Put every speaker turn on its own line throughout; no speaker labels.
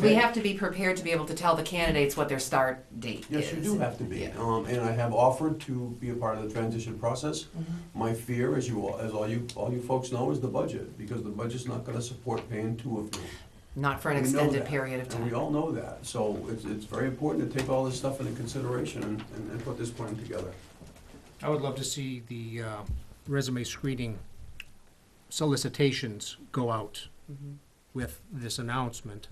we have to be prepared to be able to tell the candidates what their start date is.
Yes, you do have to be,
Yeah.
um, and I have offered to be a part of the transition process.
Mm-hmm.
My fear, as you all, as all you, all you folks know, is the budget, because the budget's not gonna support paying two of you.
Not for an
We know
extended
that,
period of
And we
time.
all know that, so it's, it's very important to take all this stuff into consideration and, and- and put this plan together.
I would love to see the uh, resume screening solicitations go out with this announcement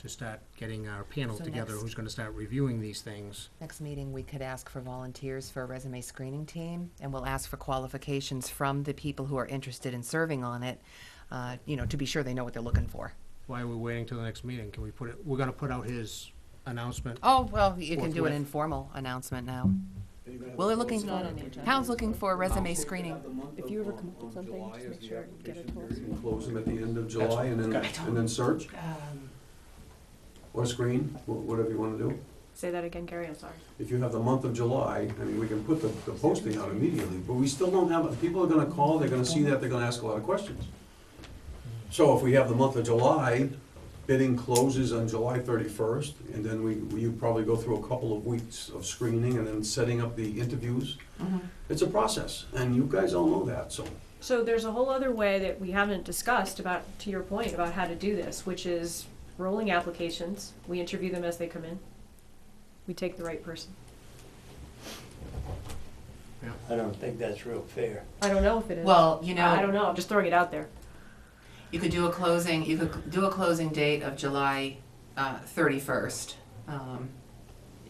to start getting our panel
So
together,
next-
who's gonna start reviewing these things.
Next meeting, we could ask for volunteers for a resume screening team, and we'll ask for qualifications from the people who are interested in serving on it, uh, you know, to be sure they know what they're looking for.
Why are we waiting till the next meeting? Can we put it, we're gonna put out his announcement.
Oh, well, you can do an
Forthwith.
informal announcement now. Well, they're looking,
Not on the agenda.
town's looking for a resume screening.
If you ever come up with something, just make sure get it to us.
Close them at the end of July and then, and then search, or screen, wha- whatever you wanna do.
Say that again, Gary, I'm sorry.
If you have the month of July, I mean, we can put the, the posting out immediately, but we still don't have, people are gonna call, they're gonna see that, they're gonna ask a lot of questions. So if we have the month of July, bidding closes on July thirty-first, and then we, we probably go through a couple of weeks of screening and then setting up the interviews.
Mhm.
It's a process, and you guys all know that, so.
So there's a whole other way that we haven't discussed about, to your point, about how to do this, which is rolling applications. We interview them as they come in. We take the right person.
I don't think that's real fair.
I don't know if it is.
Well, you
I I don't
know,
know, I'm just throwing it out there.
you could do a closing, you could do a closing date of July uh, thirty-first. um,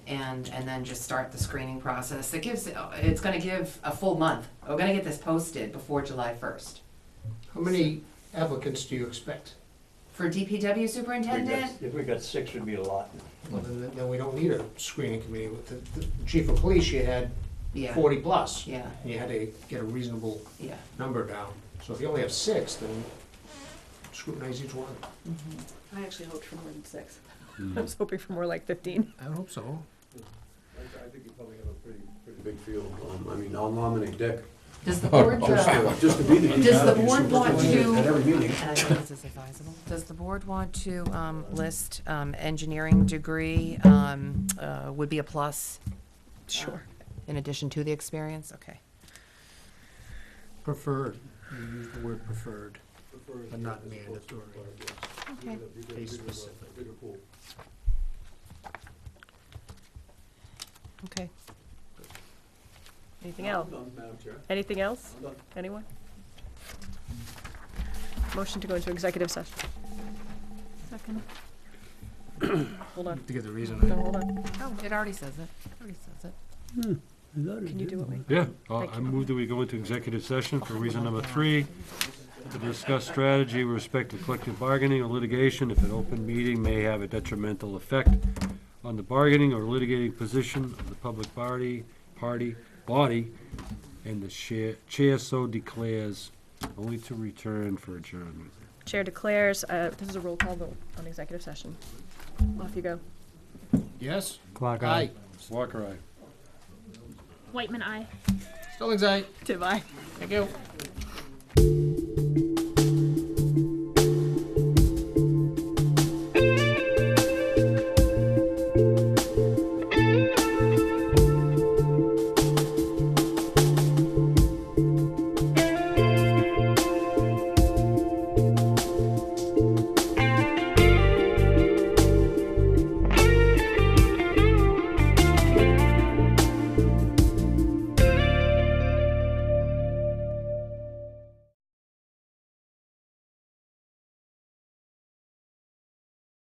And, and then just start the screening process. It gives, it's gonna give a full month. We're gonna get this posted before July first.
How many applicants do you expect?
For DPW
We got-
superintendent?
If we got six, it'd be a lot.
Well, then, then we don't need a screening committee. With the, the chief of police, you had
Yeah,
forty plus.
yeah,
You had to get a reasonable
yeah.
number down. So if you only have six, then scrutinize each one.
I actually hoped for more than six.
Hmm.
I was hoping for more like fifteen.
I hope so.
I think you probably have a pretty, pretty big field, um, I mean, I'll nominate Dick,
Does the board,
just
uh,
to, just to be the DPW
Does the board want
superintendent
to-
At every meeting.
And I think this is advisable. Does the board want to um, list um, engineering degree um, uh, would be a plus? Sure. In addition to the experience? Okay.
Preferred, you use the word preferred, but not mandatory.
Okay.
Case specific.
Okay.
Anything else? Anything else? Anyone? Motion to go into executive session. Second. Hold on,
To get the reason.
no, hold on.
Oh, it already says it. It already says it.
Can you do it, Wayne?
Yeah, uh,
Thank
I
you.
move that we go into executive session for reason number three, to discuss strategy with respect to collective bargaining or litigation if an open meeting may have a detrimental effect on the bargaining or litigating position of the public party, party, body, and the chair, chair so declares, only to return for adjournment.
Chair declares, uh, this is a roll call vote on executive session. Off you go.
Yes?
Clock
Aye.
Walker, aye.
Whiteman, I.
Stillings aye.
Goodbye.
Thank you.